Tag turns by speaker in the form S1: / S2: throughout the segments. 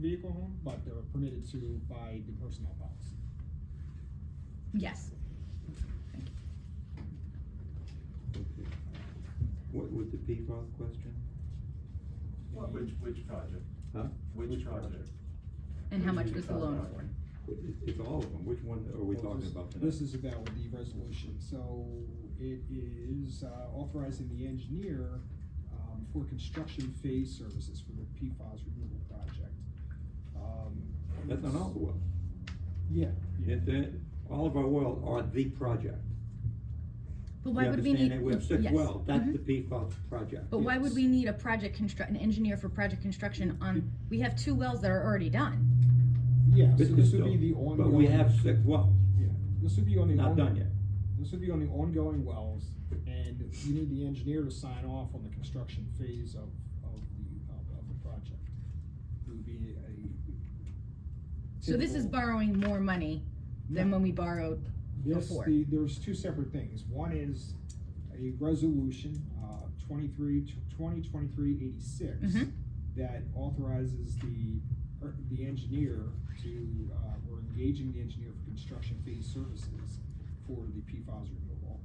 S1: vehicle home, but they're permitted to by the personnel policy.
S2: Yes.
S3: Okay. What was the PFAS question?
S4: What, which, which project?
S3: Huh?
S4: Which project?
S2: And how much was the loan for?
S3: It- It's, it's all of them, which one are we
S1: Well,
S3: talking
S1: this-
S3: about? tonight?
S1: This is about the resolution, so it is uh, authorizing the engineer um, for construction phase services for the PFAS removal project. Um,
S3: That's on all the wells.
S1: Yeah. yeah.
S3: And then, all of our wells are the project.
S2: But why
S3: You
S2: would we
S3: understand
S2: need?
S3: that? We have six
S2: yes.
S3: wells, that's
S2: Mhm.
S3: the PFAS project.
S2: But why would
S1: yes.
S2: we need a project construct, an engineer for project construction on, we have two wells that are already done.
S1: Yeah,
S3: But
S1: so this would
S3: still-
S1: be the ongoing.
S3: But we have six wells,
S1: Yeah, this would be on the.
S3: not
S1: ongoing-
S3: done yet.
S1: This would be on the ongoing wells, and you need the engineer to sign off on the construction phase of, of the, of, of the project. It would be a.
S2: So this is
S1: typical-
S2: borrowing more money than
S1: No.
S2: when we borrowed
S1: This,
S2: before.
S1: the, there's two separate things. One is a resolution, uh, twenty-three, twenty twenty-three eighty-six
S2: Mhm.
S1: that authorizes the, er, the engineer to, uh, we're engaging the engineer for construction phase services for the PFAS removal.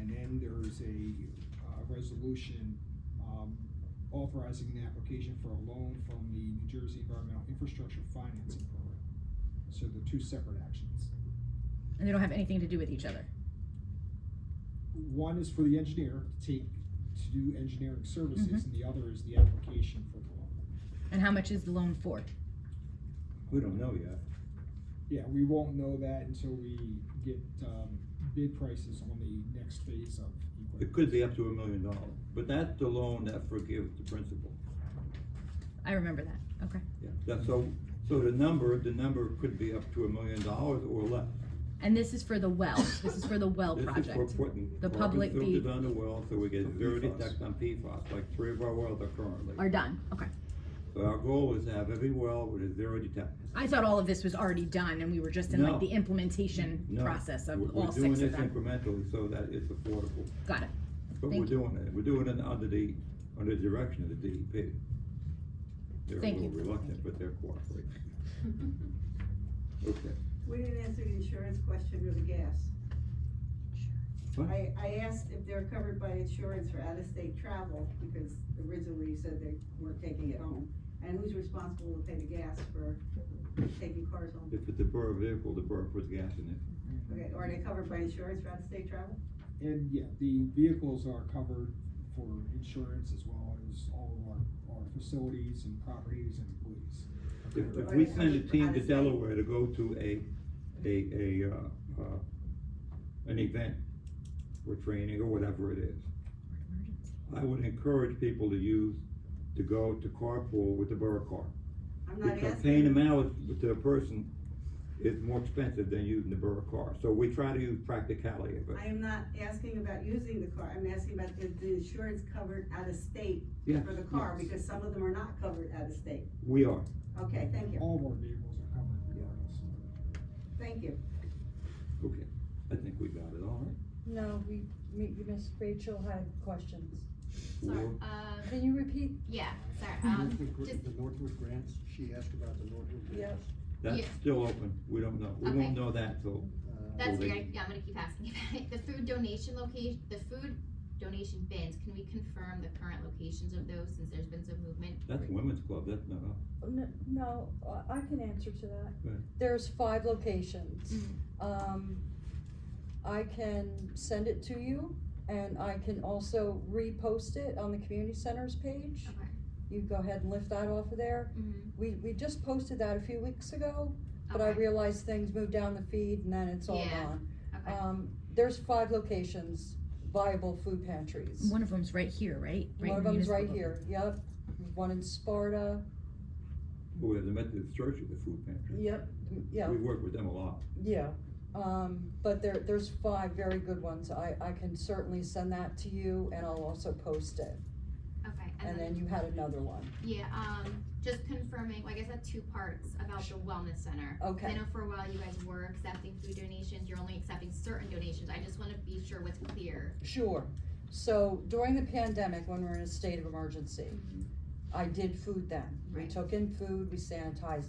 S1: And then there's a, uh, resolution, um, authorizing the application for a loan from the New Jersey Environmental Infrastructure Financing Program. So they're two separate actions.
S2: and they don't have anything to do with each other.
S1: One is for the engineer to take, to do engineering
S5: Mm-hmm.
S1: services, and the other is the application for the loan.
S2: And how much is the loan for?
S3: We don't know yet.
S1: Yeah, we won't know that until we get, um, bid prices on the next phase of
S3: It
S1: equipment.
S3: could be up to a million dollars, but that's the loan that forgives the principal.
S2: I remember that, okay.
S3: Yeah. That's so, so the number, the number could be up to a million dollars or less.
S2: And this is for the well, this is for the well
S3: This is for
S2: project.
S3: putting
S2: The
S3: carbon
S2: public- the-
S3: filters on the well, so we get
S1: For
S3: zero
S1: PFAS.
S3: detect on PFAS, like three of our wells are
S2: Are
S3: currently.
S2: done, okay.
S3: So our goal is to have every well with a zero detect.
S2: I thought all of this was already done and we were just in
S3: No.
S2: like the implementation
S3: No,
S2: process of
S3: we're-
S2: all six
S3: We're
S2: of
S3: doing this
S2: them.
S3: incrementally so that it's affordable,
S2: Got it.
S3: but we're
S2: Thank you.
S3: doing it, we're doing it under the, under the direction of the DEP. They're a
S2: Thank
S3: little
S2: you.
S3: reluctant, but they're cooperating. Okay.
S5: We didn't answer the insurance question or the gas.
S3: What?
S5: I, I asked if they're covered by insurance for out-of-state travel, because originally you said they weren't taking it home. And who's responsible to pay the gas for taking cars home?
S3: If it's a burr vehicle, the burr puts gas in it.
S5: Okay, are they covered by insurance for out-of-state travel?
S1: And, yeah, the vehicles are covered for insurance as well as all of our, our facilities and properties and employees.
S3: If, if
S5: Or
S3: we
S5: they
S3: send a
S5: covered for
S3: team to
S5: out-of-state?
S3: Delaware to go to a, a, a, uh, uh, an event or training or whatever it is, I would encourage people to use, to go to carpool with the borough car.
S5: I'm not
S3: Because paying the
S5: asking.
S3: mileage to a person is more expensive than using the borough car, so we try to use practicality of it.
S5: I am not asking about using the car, I'm asking about if the insurance covered out-of-state
S3: Yes,
S5: for the car,
S3: yes.
S5: because some of them are not covered out-of-state.
S3: We are.
S5: Okay, thank you,
S1: All of our vehicles are covered regardless.
S5: thank you.
S3: Okay, I think we got it all right.
S6: No, we, me, Miss Rachel had questions.
S7: Sorry,
S3: Well,
S7: um,
S6: Can you repeat?
S7: yeah, sorry, um,
S8: Northwood, Gr-
S7: just,
S8: the Northwood grants, she asked about the Northwood
S6: Yes.
S8: grants.
S3: That's
S7: yeah.
S3: still open, we don't know, we
S7: Okay.
S3: won't know that till,
S8: Uh,
S7: that's
S3: Well,
S7: weird,
S3: they-
S7: I- yeah, I'm gonna keep asking about it, the food donation location, the food donation bins, can we confirm the current locations of those, since there's been some movement?
S3: that's women's club, that's not us.
S6: No, no, I- I can answer to
S3: Go
S6: that.
S3: ahead.
S6: There's five locations.
S7: Mhm.
S6: Um, I can send it to you and I can also repost it on the community centers page.
S7: Okay.
S6: You go ahead and lift that off of there.
S7: Mhm.
S6: We, we just posted that a few weeks ago, but I
S7: Okay.
S6: realized things moved down the feed and then it's all
S7: Yeah.
S6: gone.
S7: Okay.
S6: Um, there's five locations, viable food pantries.
S2: One of them's right here, right? Right
S6: One of
S2: in
S6: them's right
S2: Municipal.
S6: here, yep, one in Sparta,
S3: But we have the Methodist Church at the food pantry.
S6: yep, yeah,
S3: We work with them a lot.
S6: yeah. Um, but there, there's five very good ones, I, I can certainly send that to you, and I'll also post it,
S7: Okay,
S6: and then you had another one,
S7: Yeah, um, just confirming, well, I guess that's two parts about the wellness center. 'Cause I
S6: okay,
S7: know for a while you guys were accepting food donations, you're only accepting certain donations, I just wanna be sure what's clear.
S6: Mm-hmm. sure. So during the pandemic, when we we're in a state of emergency, I did food then. We
S7: Right.
S6: took in food, we sanitized